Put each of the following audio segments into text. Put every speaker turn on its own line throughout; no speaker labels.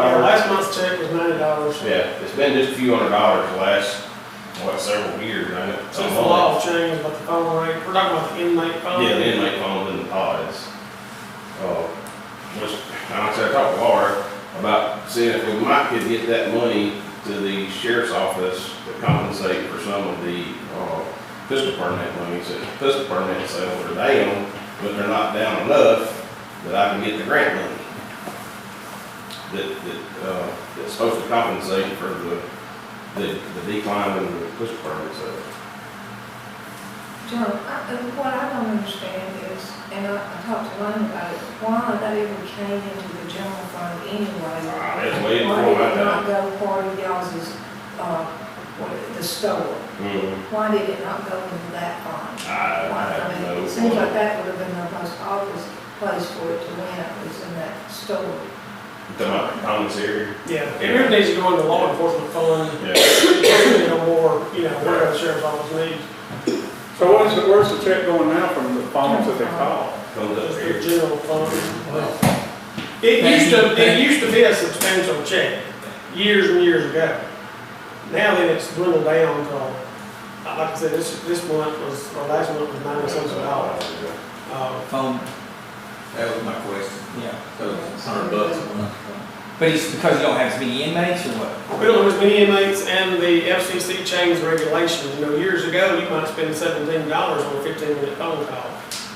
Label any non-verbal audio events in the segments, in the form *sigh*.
Uh, dollars.
Yeah, it's been just a few hundred dollars the last, what, several years, I know.
So it's the law of change, but the phone rate, we're talking about the inmate phone.
Yeah, the inmate phones and the pods. Uh, Which, like I said, I talked to Laura about seeing if we might could get that money to the sheriff's office to compensate for some of the, uh, pistol permit monies that pistol permit sales are down, but they're not down enough that I can get the grant money. That, that, uh, that's supposed to compensate for the, the the decline in the pistol permit sales.
John, I- uh, what I don't understand is, and I I talked to Lynn about it, why they even came into the general fund anyway?
Ah, that's
Why
way
did it
before my
not
time.
go part of y'all's, uh, what, the store?
Mhm.
Why did it not go into that fund?
I, I
Why,
have
I
no.
mean, it seems like that would have been the most obvious place for it to win, was in that store.
The commissary?
Yeah, it really needs to go into law enforcement fund, *coughs*
Yeah.
you know, more, you know, whatever the sheriff's office needs,
So where's the, where's the check going now from the phones that they call?
Comes up
just the
here.
general fund. It used to, it used to be a substantial check, years and years ago. Now that it's dwindled down to, uh, like I said, this, this month was, or last month was ninety cents a dollar. Uh,
phone,
That was my question,
yeah.
so it's a hundred bucks a month.
But it's because you don't have as many inmates or what?
We don't have as many inmates, and the FCC changed regulations, you know, years ago, you might spend seventeen dollars on a fifteen minute phone call.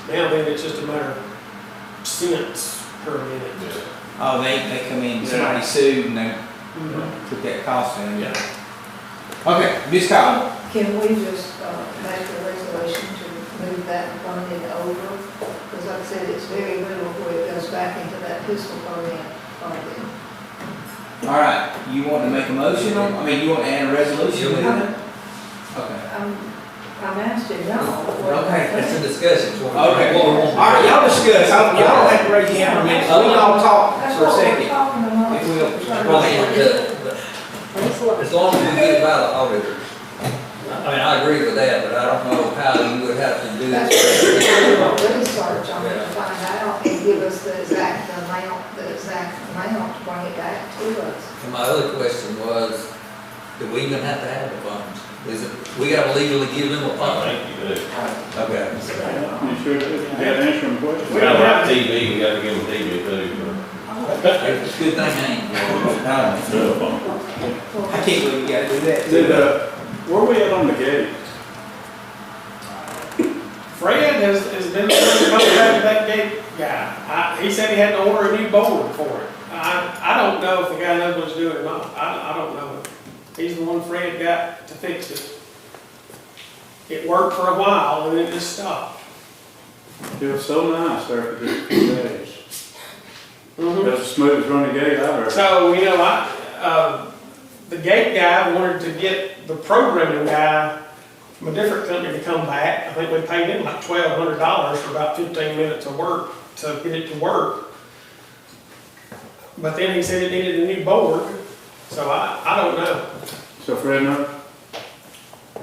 Now then, it's just a matter of cents per minute.
Yeah.
Oh, they, they come in, somebody sued and they
Mhm.
took that cost in. Okay, Ms. Cotton,
Can we just uh, make the resolution to move that funding over? Because like I said, it's very little where it goes back into that pistol permit funding.
all right, you want to make a motion on, I mean, you want to add a resolution? with it?
I'm,
Okay.
Um, I'm asking y'all. what-
Okay,
That's a discussion. it's one-
Okay,
one-
all
one-
right, y'all discuss, I don't- y'all don't have to raise your hand for a minute, so we can all talk
That's
for a
what we're
second.
talking about.
If we'll-
Trying to-
Well, yeah, but- but As long as we get it by the auditors. I mean, I agree with that, but I don't know how you would have to do
That's what
that.
we're doing, our research on it to find out and give us the exact amount, the exact amount to bring it back to us.
And my other question was, do we even have to have the funds? Is it, we gotta legally give them a
I
fund?
think you do.
Okay.
You sure, that that answering
We
question?
gotta have TV, we gotta give them TV too.
It's a good thing I ain't.
No,
Well,
I can't believe you gotta do that.
Did, uh, where we at on the gate?
Fred has, has been trying to contact that gate guy. I, he said he had to order a new board for it. I, I don't know if the guy knows what he's doing or not, I, I don't know. He's the one Fred got to fix it. It worked for a while, and then it just stopped.
It was so nice there for just a few days.
Mhm.
That's the smoothest running gate I've ever.
So, you know, I, uh, the gate guy wanted to get the programming guy from a different company to come back. I think we paid him like twelve hundred dollars for about fifteen minutes of work to get it to work. But then he said it needed a new board, so I, I don't know.
So Fred, no?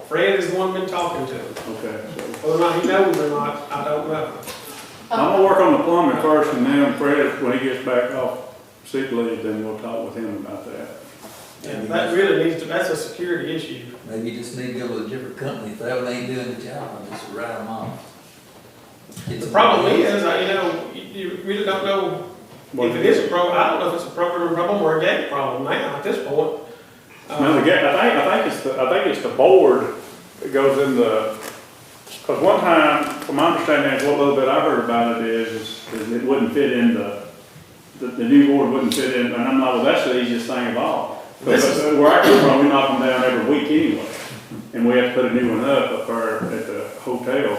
Fred is the one been talking to him.
Okay. so-
Whether or not he knows or not, I don't know.
I'm gonna work on the plumbing first and then Fred, when he gets back off sick leave, then we'll talk with him about that.
And that really needs to, that's a security issue.
Maybe you just need to go with a different company, if that one ain't doing the job, just write them off.
The problem is, uh, you know, you- you really don't know If it is a problem, I don't know if it's a program problem or a gag problem now at this point.
No, the gate, I think, I think it's the, I think it's the board that goes in the, because one time, from my understanding, is what little bit I heard about it is, is it wouldn't fit in the, the, the new board wouldn't fit in, and I'm like, well, that's the easiest thing of all.
This
Because where I come from, we knock them down every week anyway, and we have to put a new one up up there at the hotel,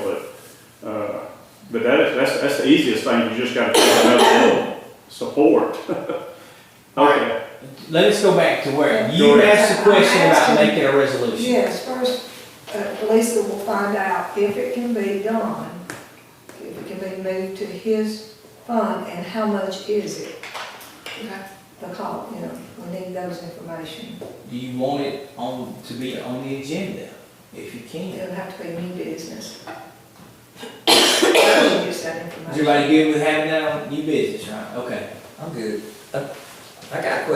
but, uh, but that is, that's, that's the easiest thing, you just gotta put another little support. *laughs* Okay,
Let's go back to where,
Go
you
ahead.
asked the question about making a resolution.
Yes, first, uh, Lisa will find out if it can be done, if it can be moved to his fund, and how much is it? The call, you know, we need those information.
Do you want it on, to be on the agenda, if you can?
It'll have to be new business. *coughs* Get that
Is
information.
everybody good with having that on new business, right? Okay.
I'm good. I I got a question